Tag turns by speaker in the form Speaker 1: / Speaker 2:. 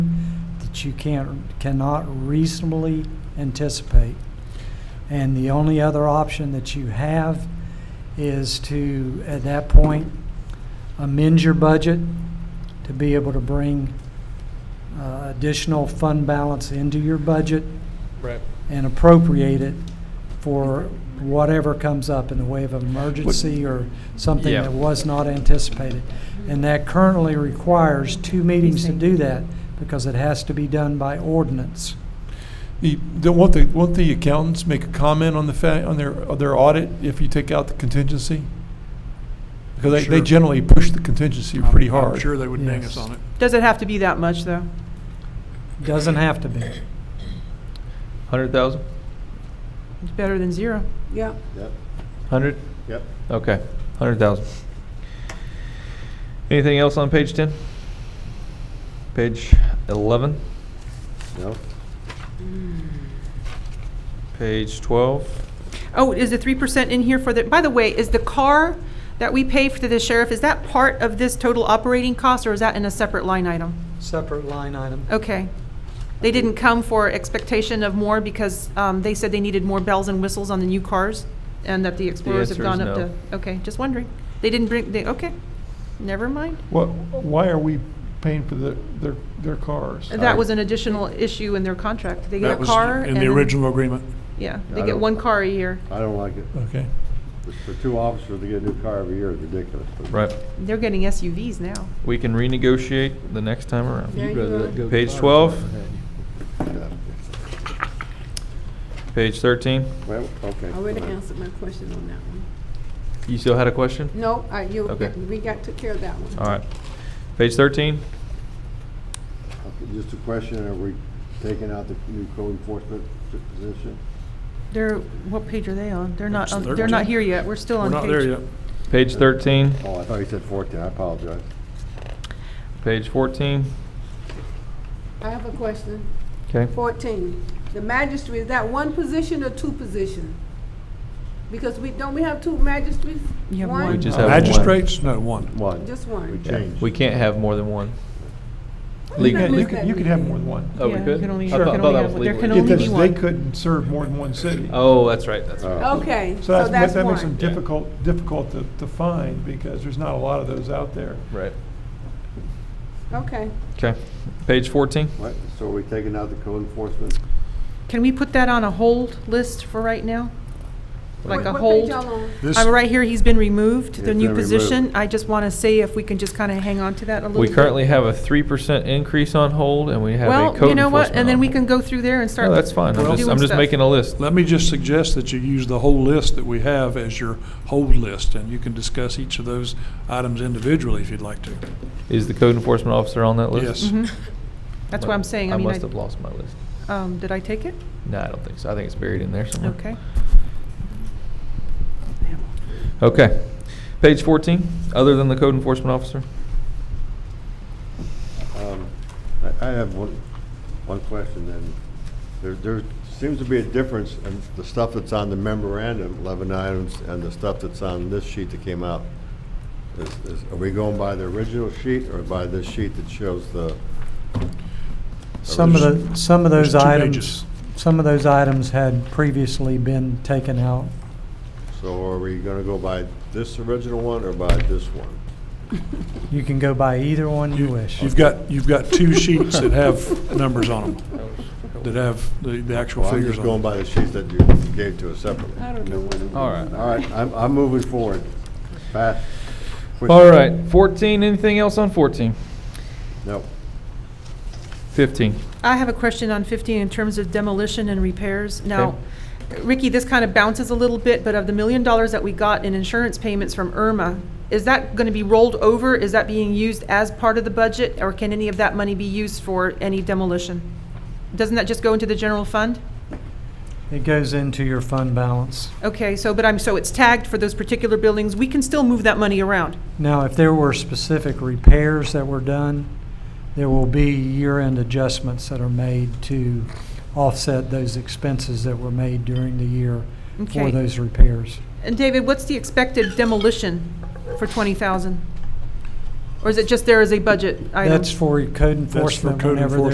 Speaker 1: that you can't, cannot reasonably anticipate. And the only other option that you have is to, at that point, amend your budget to be able to bring uh, additional fund balance into your budget
Speaker 2: Right.
Speaker 1: and appropriate it for whatever comes up in the way of emergency or something
Speaker 2: Yeah.
Speaker 1: that was not anticipated. And that currently requires two meetings to do that because it has to be done by ordinance.
Speaker 3: The, the, won't the, won't the accountants make a comment on the fa, on their, on their audit if you take out the contingency? Because they, they
Speaker 2: Sure.
Speaker 3: generally push the contingency
Speaker 2: I'm-
Speaker 3: pretty
Speaker 2: I'm
Speaker 3: hard.
Speaker 2: sure they would ding us
Speaker 1: Yes.
Speaker 2: on it.
Speaker 4: Does it have to be that much, though?
Speaker 1: Doesn't have to be.
Speaker 5: Hundred thousand?
Speaker 4: It's better than zero.
Speaker 6: Yeah,
Speaker 7: Yep,
Speaker 5: Hundred?
Speaker 7: yep.
Speaker 5: Okay, hundred thousand. Anything else on page ten? Page eleven,
Speaker 7: No,
Speaker 5: page twelve?
Speaker 4: Oh, is the three percent in here for the, by the way, is the car that we pay for the sheriff, is that part of this total operating cost, or is that in a separate line item?
Speaker 1: Separate line item.
Speaker 4: Okay. They didn't come for expectation of more because um, they said they needed more bells and whistles on the new cars, and that the Explorers have
Speaker 5: answer is
Speaker 4: gone up
Speaker 5: no.
Speaker 4: to, okay, just wondering. They didn't bring, they, okay, never mind.
Speaker 3: What, why are we paying for the, their, their cars?
Speaker 4: That was an additional issue in their contract. They
Speaker 2: That
Speaker 4: get a
Speaker 2: was
Speaker 4: car.
Speaker 2: In the
Speaker 4: and-
Speaker 2: original agreement.
Speaker 4: Yeah,
Speaker 7: Yeah,
Speaker 4: they
Speaker 7: I
Speaker 4: get
Speaker 7: don't-
Speaker 4: one car a year.
Speaker 7: I don't like it.
Speaker 3: Okay.
Speaker 7: For two officers to get a new car every year is ridiculous.
Speaker 5: Right,
Speaker 4: They're getting SUVs now.
Speaker 5: we can renegotiate the next time around.
Speaker 6: there you go.
Speaker 5: Page twelve, page thirteen,
Speaker 7: Well, okay.
Speaker 6: I already answered my question on that one.
Speaker 5: you still had a question?
Speaker 6: No, I, you,
Speaker 5: Okay.
Speaker 6: we got, took care of that one.
Speaker 5: All right, page thirteen,
Speaker 7: Okay, Just a question, are we taking out the new code enforcement position?
Speaker 4: They're, what page are they on? They're not,
Speaker 2: It's
Speaker 4: on- they're not
Speaker 2: 13.
Speaker 4: here yet. We're still
Speaker 2: We're
Speaker 4: on
Speaker 2: not there
Speaker 4: page.
Speaker 2: yet.
Speaker 5: page thirteen,
Speaker 7: Oh, I thought you said fourteen, I apologize.
Speaker 5: page fourteen,
Speaker 6: I have a question.
Speaker 5: okay?
Speaker 6: Fourteen, the magistrate, is that one position or two position? Because we, don't we have two magistrates?
Speaker 4: You have one.
Speaker 5: We
Speaker 3: Uh,
Speaker 5: just have one.
Speaker 2: Magistrates? No, one.
Speaker 7: One.
Speaker 6: Just
Speaker 7: We
Speaker 6: one.
Speaker 5: Yeah,
Speaker 7: changed.
Speaker 5: We can't have more than one.
Speaker 3: You
Speaker 5: Legally.
Speaker 3: can, you can, you can have more than one.
Speaker 5: Oh, we
Speaker 4: Yeah, you
Speaker 5: could?
Speaker 4: can only-
Speaker 5: I
Speaker 4: you
Speaker 5: thought-
Speaker 4: can
Speaker 5: thought
Speaker 4: only
Speaker 5: that
Speaker 4: have
Speaker 5: was
Speaker 4: one. There
Speaker 5: legal.
Speaker 4: can
Speaker 3: If
Speaker 4: only
Speaker 3: this-
Speaker 4: be
Speaker 3: They
Speaker 4: one.
Speaker 3: couldn't serve more than one city.
Speaker 5: Oh, that's right, that's right.
Speaker 7: Oh.
Speaker 6: Okay,
Speaker 3: So
Speaker 6: so
Speaker 3: that's,
Speaker 6: that's
Speaker 3: that makes them
Speaker 6: one.
Speaker 5: Yeah.
Speaker 3: difficult, difficult to, to find because there's not a lot of those out there.
Speaker 5: Right.
Speaker 6: Okay,
Speaker 5: Okay. Page 14?
Speaker 7: What? So are we taking out the code enforcement?
Speaker 4: Can we put that on a hold list for right now? Like a
Speaker 6: what page
Speaker 4: hold?
Speaker 6: y'all on?
Speaker 2: This,
Speaker 4: I'm right here, he's been removed, the
Speaker 7: It's
Speaker 4: new
Speaker 7: been
Speaker 4: position.
Speaker 7: removed.
Speaker 4: I just want to see if we can just kind of hang on to that a little
Speaker 5: We
Speaker 4: bit.
Speaker 5: currently have a 3% increase on hold and we have a code
Speaker 4: Well, you know what,
Speaker 5: enforcement
Speaker 4: and
Speaker 5: on
Speaker 4: then we
Speaker 5: hold.
Speaker 4: can go through there and start.
Speaker 5: No, that's fine. I'm
Speaker 2: Well-
Speaker 5: just, I'm
Speaker 4: doing
Speaker 5: just
Speaker 4: stuff.
Speaker 5: making a list.
Speaker 2: let me just suggest that you use the whole list that we have as your hold list, and you can discuss each of those items individually if you'd like to.
Speaker 5: Is the code enforcement officer on that list?
Speaker 2: Yes.
Speaker 4: Mhm. That's what I'm saying, I mean,
Speaker 5: must have
Speaker 4: I,
Speaker 5: lost my list.
Speaker 4: um, did I take it?
Speaker 5: No, I don't think so. I think it's buried in there somewhere.
Speaker 4: Okay.
Speaker 5: Okay. Page 14, other than the code enforcement officer?
Speaker 7: Um, I I have one, one question then. There, there seems to be a difference in the stuff that's on the memorandum, 11 items, and the stuff that's on this sheet that came out. Is- is- Are we going by the original sheet or by this sheet that shows the,
Speaker 1: Some of the, some of
Speaker 2: There's
Speaker 1: those
Speaker 2: two
Speaker 1: items,
Speaker 2: pages.
Speaker 1: some of those items had previously been taken out.
Speaker 7: so are we going to go by this original one or by this one?
Speaker 1: You can go by either one you
Speaker 2: You-
Speaker 1: wish.
Speaker 2: You've got, you've got two sheets that have numbers on them, that have the, the actual
Speaker 7: Well, I'm
Speaker 2: figures
Speaker 7: just going
Speaker 2: on them.
Speaker 7: by the sheets that you gave to us separately.
Speaker 6: I don't know what it was.
Speaker 5: All right.
Speaker 7: All right, I'm, I'm moving forward. Fast. quick.
Speaker 5: All right. 14, anything else on 14?
Speaker 7: No.
Speaker 5: 15.
Speaker 4: I have a question on 15 in terms of demolition and repairs. Now, Ricky, this kind of bounces a little bit, but of the million dollars that we got in insurance payments from Irma, is that going to be rolled over? Is that being used as part of the budget, or can any of that money be used for any demolition? Doesn't that just go into the general fund?
Speaker 1: It goes into your fund balance.
Speaker 4: Okay, so, but I'm, so it's tagged for those particular buildings. We can still move that money around.
Speaker 1: Now, if there were specific repairs that were done, there will be year-end adjustments that are made to offset those expenses that were made during the year for
Speaker 4: Okay.
Speaker 1: those repairs.
Speaker 4: And David, what's the expected demolition for 20,000? Or is it just there as a budget item?
Speaker 1: That's for code
Speaker 2: for
Speaker 1: enforcement
Speaker 2: code
Speaker 1: whenever